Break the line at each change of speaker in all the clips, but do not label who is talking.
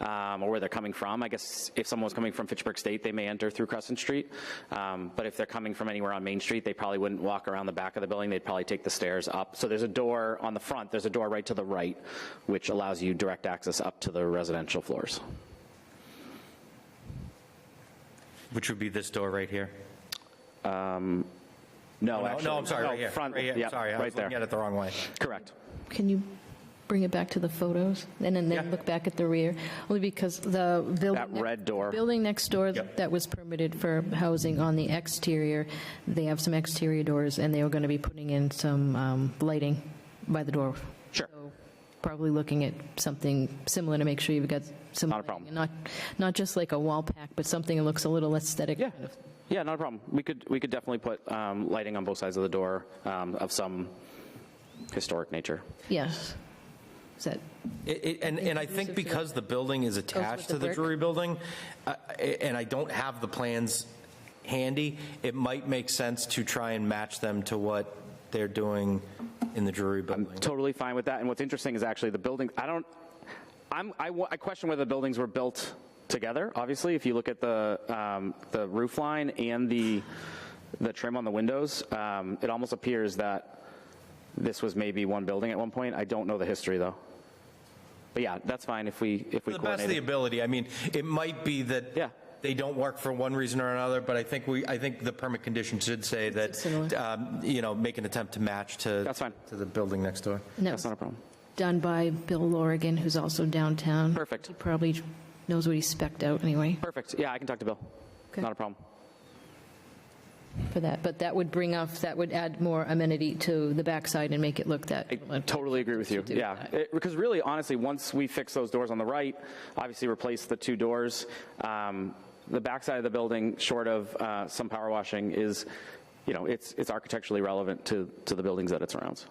um, or where they're coming from. I guess if someone was coming from Fitchburg State, they may enter through Crescent Street. Um, But if they're coming from anywhere on Main Street, they probably wouldn't walk around the back of the building. They'd probably take the stairs up. So there's a door on the front, there's a door right to the right, which allows you direct access up to the residential floors.
Which would be this door right here?
No,
Oh, No,
actually.
no, I'm sorry, right here.
Front,
Right here,
yeah,
Sorry, I
right
was looking at
there.
it the wrong way.
Correct.
Can you bring it back to the photos and then
Yeah.
then look back at the rear? Only because the building.
That
ne-
red door.
Building next door
Yep.
that was permitted for housing on the exterior, they have some exterior doors and they are going to be putting in some um, lighting by the door.
Sure.
So Probably looking at something similar to make sure you've got some.
Not a
lighting
problem.
and Not, not just like a wall pack, but something that looks a little aesthetic.
Yeah, yeah, not a problem. We could, we could definitely put um, lighting on both sides of the door um, of some historic nature.
Yes. Is that?
It- it- And, and I think because the building is attached to
the
the
brick?
Drury Building, uh, and I don't have the plans handy, it might make sense to try and match them to what they're doing in the Drury Building.
Totally fine with that. And what's interesting is actually the building, I don't, I'm, I, wa- I question whether the buildings were built together, obviously, if you look at the, um, the roof line and the, the trim on the windows, um, it almost appears that this was maybe one building at one point. I don't know the history, though. But yeah, that's fine if we, if we
To the best of the
coordinate. it.
ability, I mean, it might be that
Yeah.
they don't work for one reason or another, but I think we, I think the permit condition should say that,
similar.
um, you know, make an attempt to match to.
That's fine.
To the building next door.
and that
That's
was-
not a problem.
done by Bill Lorigan, who's also downtown.
Perfect.
He probably knows what he spec'd out anyway
Perfect. Yeah, I can talk to Bill.
Okay.
Not a problem.
for that, but that would bring off, that would add more amenity to the backside and make it look that.
I totally agree with you.
do
Yeah,
that.
It- because really, honestly, once we fix those doors on the right, obviously replace the two doors, um, the backside of the building, short of uh, some power washing, is, you know, it's it's architecturally relevant to to the buildings that it surrounds.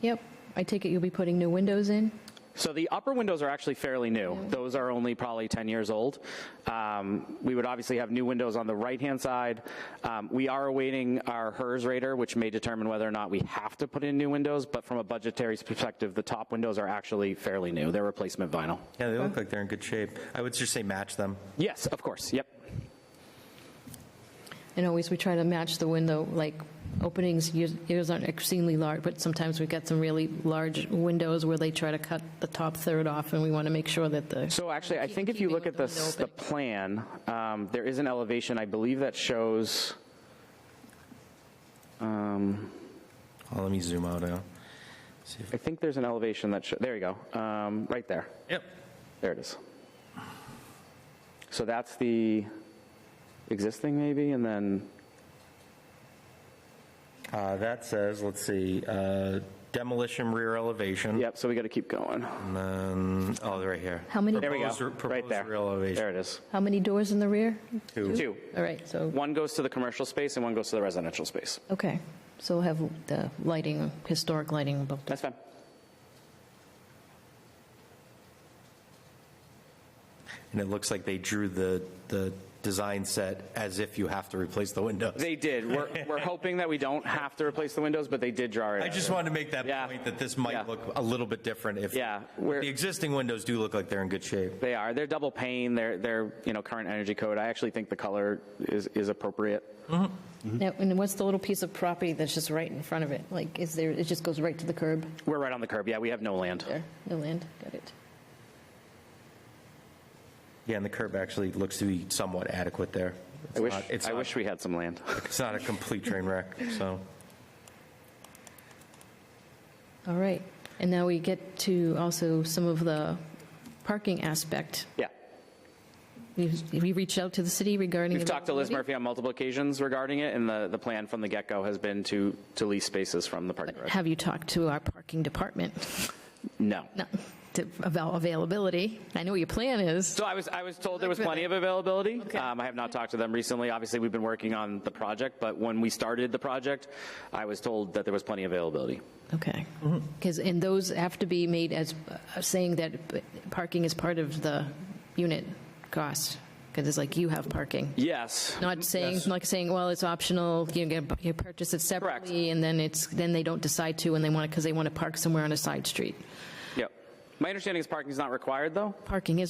Yep, I take it you'll be putting new windows in?
So the upper windows are actually fairly new. Those are only probably 10 years old. Um, we would obviously have new windows on the right-hand side. Um, we are awaiting our HERS rater, which may determine whether or not we have to put in new windows. But from a budgetary perspective, the top windows are actually fairly new. They're replacement vinyl.
Yeah, they look like they're in good shape. I would just say match them.
Yes, of course. Yep.
And always we try to match the window, like openings, yours yours aren't exceedingly large, but sometimes we've got some really large windows where they try to cut the top third off and we want to make sure that the,
So actually, I
Keep-
think if you
keeping
look at the,
with the
s- the
window
plan, um, there is an elevation, I believe, that shows.
Oh, let me zoom out now.
I think there's an elevation that shows. There you go. Um, right there.
Yep.
There it is. So that's the existing maybe, and then,
Uh, that says, let's see, uh, demolition rear elevation.
yep, so we got to keep going.
And then, oh, they're right here.
How many-
There we go,
Proposed-
right
Proposed
there.
rear elevation.
There it is.
how many doors in the rear?
Two.
All right, so,
One goes to the commercial space and one goes to the residential space.
okay, so we'll have the lighting, historic lighting above.
That's fine.
And it looks like they drew the, the design set as if you have to replace the windows.
They did. We're, we're hoping that we don't have to replace the windows, but they did draw it.
I
out.
just wanted to make that
Yeah.
point that this
Yeah.
might look a little bit different if.
Yeah, we're-
The existing windows do look like they're in good shape.
They are. They're double pane. They're, they're, you know, current energy code. I actually think the color is, is appropriate.
Now, and what's the little piece of property that's just right in front of it? Like, is there, it just goes right to the curb
We're right on the curb. Yeah, we have no land.
there? No land, got it.
Yeah, and the curb actually looks to be somewhat adequate there. It's
I wish,
not- it's
I
not-
wish we had some land.
It's not a complete train wreck, so.
All right. And now we get to also some of the parking aspect.
Yeah.
We we reached out to the city regarding.
We've talked to Liz Murphy on multiple occasions regarding it, and the, the plan from the get-go has been to, to lease spaces from the parking garage.
Have you talked to our parking department
No.
No, to- about availability? I know what your plan is.
So I was, I was told there was plenty of availability.
Okay.
Um, I have not talked to them recently. Obviously, we've been working on the project, but when we started the project, I was told that there was plenty of availability.
Okay. Because, and those have to be made as, uh, saying that parking is part of the unit cost, because it's like you have parking.
Yes.
Not saying, like saying, well, it's optional, you get, you purchase it separately, and then it's, then they don't decide to, and they want it, because they want to park somewhere on a side street.
Yep. My understanding is parking is not required, though?
Parking is